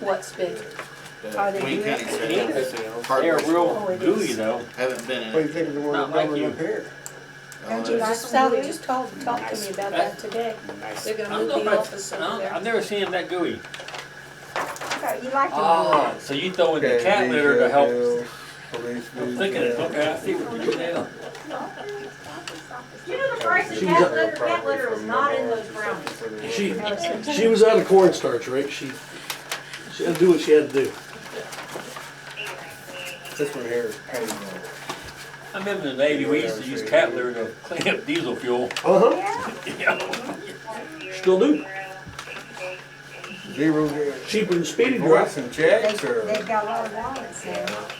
what's been, Are they The Wayne doing County it? sales, They're hardware store, Oh, real it gooey is. though. haven't been in. What do you think of the one Not that's like going you. up here? Oh, don't you like that's- Sally just called and talked to me about that today. Nice. They're gonna I don't move know the if I- office I over don't- there. I've never seen them that gooey. Okay, You like Oh. Ah, it? so you throw in the cat litter to help. I'm thinking, it. okay, I see what you're doing now. You know the price of cat litter, cat litter is not in those brownies. She, she was out of cornstarch, Rick. She, she had to do what she had to do. This one here. I remember in the Navy, we used to use cat litter to clean up diesel fuel. Uh-huh, Yeah. Still do. zero, zero. Cheaper than speeding You want rock. some They- checks or? They've got a lot of wallets there. That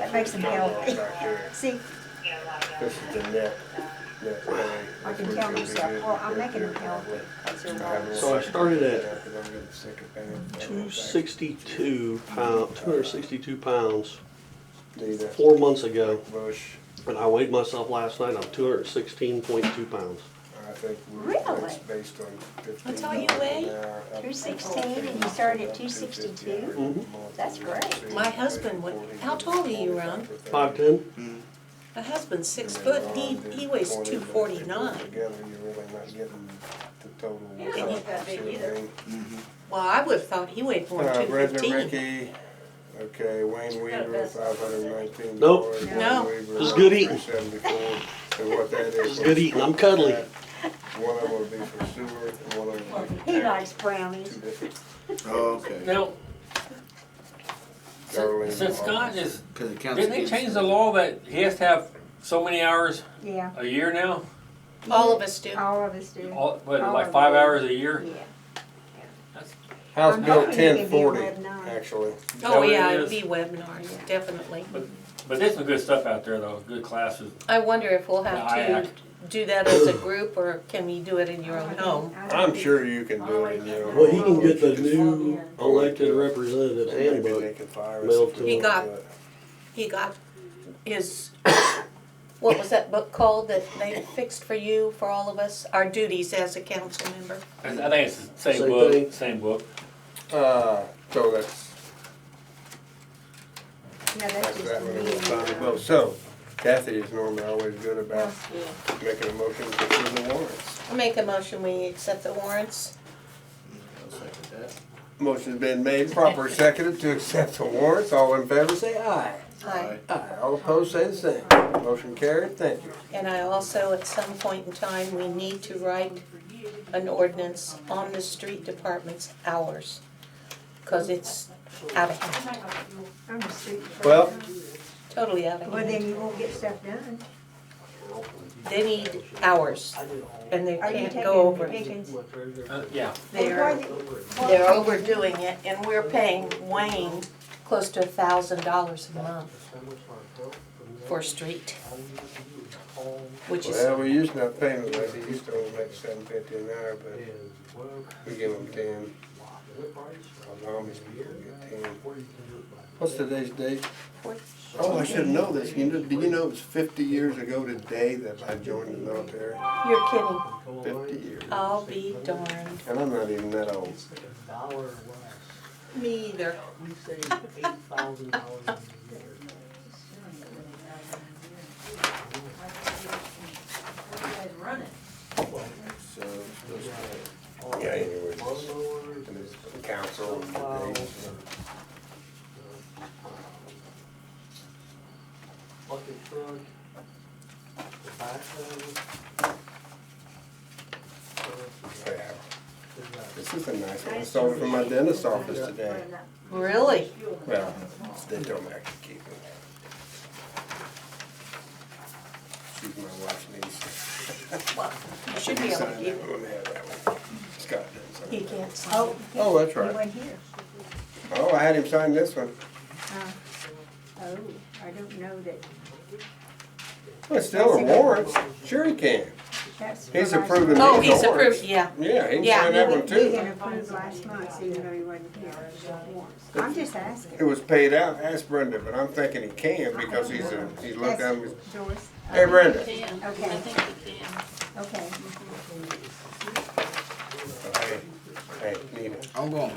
That makes them healthy. See, This is the net, net way. I can tell myself, well, I'm making them healthy. That's their wallets. So I started at Two sixty-two pound, two hundred sixty-two pounds, four months ago. Bush, And I weighed myself last night, I'm two hundred sixteen point two pounds. I think. we- Really? that's Based on fifteen. That's all you dollars an weigh? hour, up to 216, $14, and you started at up to 262? 58. That's great. My husband would- how tall are you, Ron? Five ten? My husband's six foot, he, um, he weighs two forty-nine. Together, you're really not getting the total. He doesn't look that big either. Well, I would've thought he weighed more Uh, than two Brethren fifteen. Ricky, okay, Wayne Weaver, best. five hundred nineteen. Nope. No. It's good eating. So what that is. Good eating, I'm cuddly. One of them will be for sewer, and one of them will be. for He tax. likes brownies. Two different- Oh, okay. Now, Darlene since since Scott Hawkins. is, Cause it counts didn't they against change you. the law that he has to have so many hours Yeah, a year now? All of us do. all of us do. All, what, All like of five them. hours a year? Yeah. House I'm Bill hoping to ten give you forty, webinar. actually. That Oh, what it yeah, is? it'd be webinars, definitely. But there's some good stuff out there though, good classes. I wonder if we'll have Yeah, I- to do that as a group, or can we do it in your own home? I'm sure you can do it, you know. Well, he can get the new elected representative's handbook. mailed to He got- He got his, what was that book called that they fixed for you, for all of us? Our duties as a council member. I I think it's the same Same book, thing. same book. Uh, so that's, No, that's that's just that the one, we'll find it. meeting. Well, so Kathy is normally always good about making a motion to approve the warrants. I make a motion, we accept the warrants. I'll second that. Motion's been made, proper seconded to accept the warrants. All in favor, say aye. I- Aye. All opposed, say the same. Motion carried, thank you. And I also, at some point in time, we need to write an ordinance on the street department's hours, because it's out of hand, I'm a street person. Well, totally out of Well, hand. then you won't get stuff done. They need hours, and they Are you can't taking go them to over. Pickens? Uh, yeah. They're, they're overdoing it, and we're paying Wayne close to a thousand dollars a month for street, which is, well, we used to not pay them, like they used to only make seven fifty an hour, but we give them ten. Our homies people get ten. What's today's date? Oh, I should know this. You know, do you know it was fifty years ago today that I joined the military? you're kidding, Fifty years. I'll be darned. And I'm not even that old. Me either. We saved eight thousand dollars a year. So, those are- Yeah, anyways. Lawnmowers, And it's the Council. and things. bucket truck, tobacco. Yeah. This is a nice one. I saw it from my dentist's office today. Really? Well, they don't actually keep it. She's my wife's niece. You should be able to Sign do that it. one, we have that one. Scott didn't sign He it. can't sign. Oh, he- Oh, that's he right. wasn't here. Oh, I had him sign this one. Oh, I don't know that, Well, it's still a warrant. Sure he can. that's. He's what I saw. approving Oh, these he's awards. approved, yeah. Yeah, he can Yeah. sign that one He too. had approved last month, even though he wasn't here. I'm just asking. It was paid out. Ask Brenda, but I'm thinking he can because he's a, he's looked down, he's, That's Joyce. uh, hey Brenda. Okay, he can. okay. Hey, hey, Nita. I'm going.